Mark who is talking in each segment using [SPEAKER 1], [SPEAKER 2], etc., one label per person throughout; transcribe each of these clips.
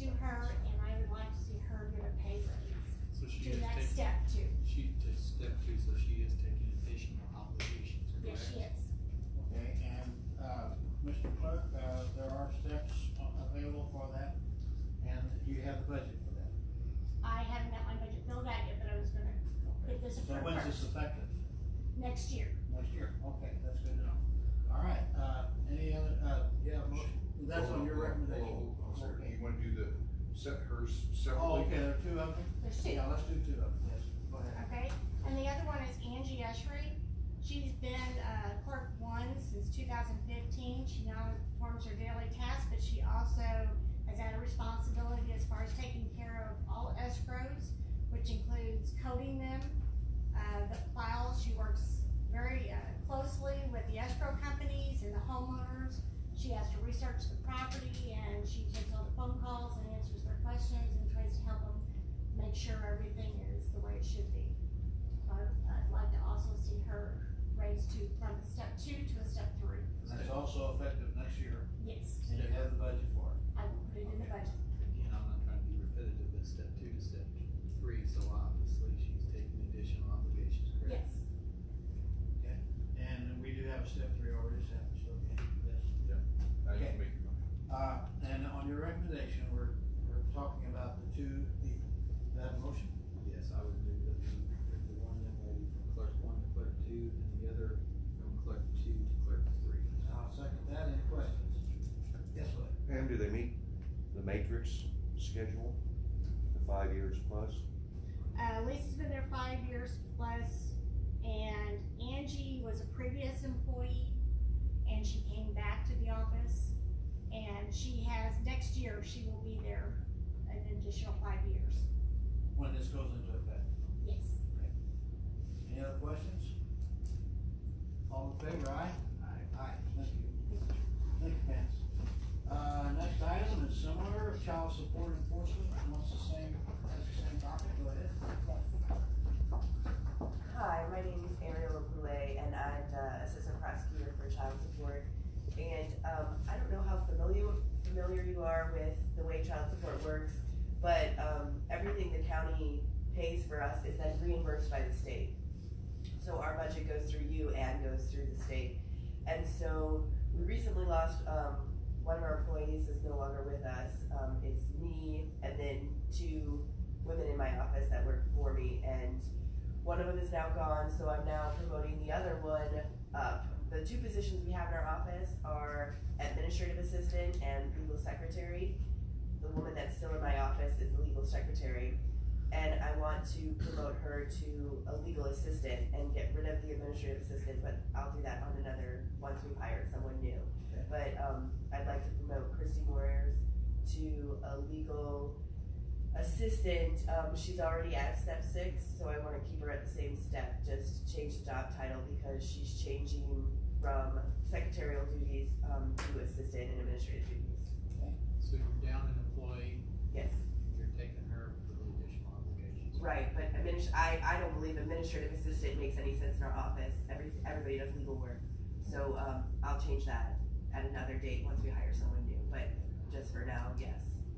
[SPEAKER 1] to her, and I would like to see her get a pay raise.
[SPEAKER 2] So she
[SPEAKER 1] Do
[SPEAKER 2] is
[SPEAKER 1] that
[SPEAKER 2] taking,
[SPEAKER 1] step two.
[SPEAKER 2] she took step two, so she is taking additional obligations,
[SPEAKER 1] Yes,
[SPEAKER 2] correct?
[SPEAKER 1] she is.
[SPEAKER 3] Okay, and, uh, Mr. Clerk, uh, there are steps a- available for that, and you have the budget for that.
[SPEAKER 1] I haven't got my budget filled out yet, but I was gonna
[SPEAKER 3] Okay.
[SPEAKER 1] get this
[SPEAKER 3] So
[SPEAKER 1] approved
[SPEAKER 3] when's this
[SPEAKER 1] first,
[SPEAKER 3] effective?
[SPEAKER 1] next year.
[SPEAKER 3] Next year, okay, that's good to know. All right, uh, any other, uh, yeah, motion, that's on
[SPEAKER 4] Hold hold
[SPEAKER 3] your
[SPEAKER 4] hold
[SPEAKER 3] recommendation.
[SPEAKER 4] hold on, sir.
[SPEAKER 3] Okay.
[SPEAKER 4] You wanna do the, set hers
[SPEAKER 3] Oh,
[SPEAKER 4] separately?
[SPEAKER 3] okay, there are two of them?
[SPEAKER 1] There's two,
[SPEAKER 3] Yeah, let's do two of them, yes, go ahead.
[SPEAKER 1] okay? And the other one is Angie Eschery. She's been, uh, clerk one since two thousand fifteen. She now performs her daily tasks, but she also has had a responsibility as far as taking care of all escrows, which includes coding them, uh, the files. She works very, uh, closely with the escrow companies and the homeowners. She has to research the property and she takes all the phone calls and answers their questions and tries to help them make sure everything is the way it should be. So I'd, I'd like to also see her raised to, from a step two to a step three.
[SPEAKER 3] And that's also effective next year,
[SPEAKER 1] Yes,
[SPEAKER 3] and you have the budget for it.
[SPEAKER 1] I will put it in the budget.
[SPEAKER 2] Again, I'm not trying to be repetitive, but step two to step three, so obviously she's taking additional obligations, correct?
[SPEAKER 1] Yes,
[SPEAKER 3] And we do have a step three already set, so, okay, yes.
[SPEAKER 4] Now you
[SPEAKER 3] okay.
[SPEAKER 4] can make your motion.
[SPEAKER 3] Uh, and on your recommendation, we're, we're talking about the two, the, that motion?
[SPEAKER 2] Yes, I would do the, the one that way from clerk one to clerk two, and the other from clerk two to clerk three.
[SPEAKER 3] I'll second that, any questions? Yes, please.
[SPEAKER 5] Pam, do they meet the matrix schedule, the five years plus?
[SPEAKER 1] uh, Lisa's been there five years plus, and Angie was a previous employee, and she came back to the office, and she has, next year, she will be there an additional five years.
[SPEAKER 3] when this goes into effect.
[SPEAKER 1] Yes.
[SPEAKER 3] Any other questions? All in favor, aye? Aye. Aye, thank you. Thank you, Vance. Uh, next item is similar, child support enforcement, wants the same, has the same topic, go ahead.
[SPEAKER 6] Hi, my name is Ariel Goulet, and I'm the Assistant Prosecutor for Child Support. And um, I don't know how familiar, familiar you are with the way child support works, but um, everything the county pays for us is then reimbursed by the state. So our budget goes through you and goes through the state. And so we recently lost, um, one of our employees is no longer with us. Um, It's me and then two women in my office that work for me. And one of them is now gone, so I'm now promoting the other one up. The two positions we have in our office are administrative assistant and legal secretary. The woman that's still in my office is the legal secretary. And I want to promote her to a legal assistant and get rid of the administrative assistant, but I'll do that on another, once we've hired someone new.
[SPEAKER 3] Okay.
[SPEAKER 6] But, um, I'd like to promote Christy Moyers to a legal assistant, um, she's already at step six, so I wanna keep her at the same step, just change the job title because she's changing from secretarial duties, um, to assistant and administrative duties.
[SPEAKER 2] So you're down an employee,
[SPEAKER 6] Yes,
[SPEAKER 2] you're taking her for the additional obligations.
[SPEAKER 6] right, but adminis- I, I don't believe administrative assistant makes any sense in our office, every, everybody does legal work. So, um, I'll change that at another date once we hire someone new, but just for now, yes,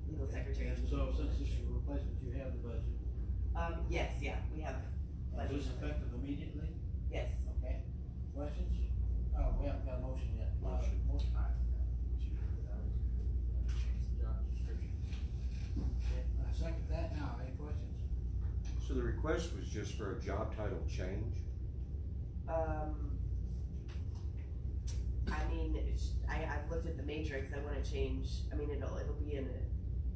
[SPEAKER 6] legal secretary.
[SPEAKER 3] And so since this is a replacement, you have the budget.
[SPEAKER 6] Um, yes, yeah, we have,
[SPEAKER 3] Is this effective immediately?
[SPEAKER 6] yes,
[SPEAKER 3] Okay. Questions? Uh, we haven't got a motion yet. Uh,
[SPEAKER 2] Motion.
[SPEAKER 3] Motion.
[SPEAKER 2] I, she, I would, I would change the job description.
[SPEAKER 3] Okay, I second that now, any questions?
[SPEAKER 5] So the request was just for a job title change?
[SPEAKER 6] Um, I mean, it's- I, I've looked at the matrix, I wanna change, I mean, it'll, it'll be an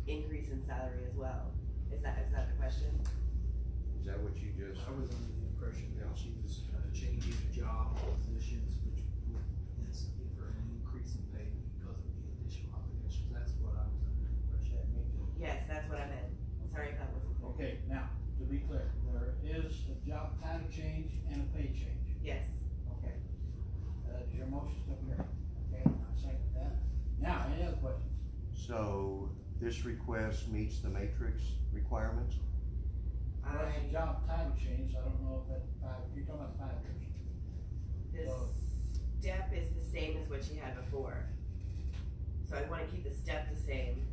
[SPEAKER 6] increase in salary as well. Is that, is that the question?
[SPEAKER 5] Is that what you just?
[SPEAKER 2] I was under the impression that she was uh, changing job positions, which would yes, give her an increase in pay because of the additional obligations, that's what I was under the impression.
[SPEAKER 3] Check, me too.
[SPEAKER 6] Yes, that's what I meant, sorry if that wasn't clear.
[SPEAKER 3] Okay, now, to be clear, there is a job title change and a pay change.
[SPEAKER 6] Yes,
[SPEAKER 3] Okay. Uh, is your motion still carry? Okay, I second that. Now, any other questions?
[SPEAKER 5] So this request meets the matrix requirements?
[SPEAKER 3] Well,
[SPEAKER 6] I,
[SPEAKER 3] it's a job title change, I don't know if that five, you're talking about five years.
[SPEAKER 6] this step is the same as what she had before. So I wanna keep the step the same,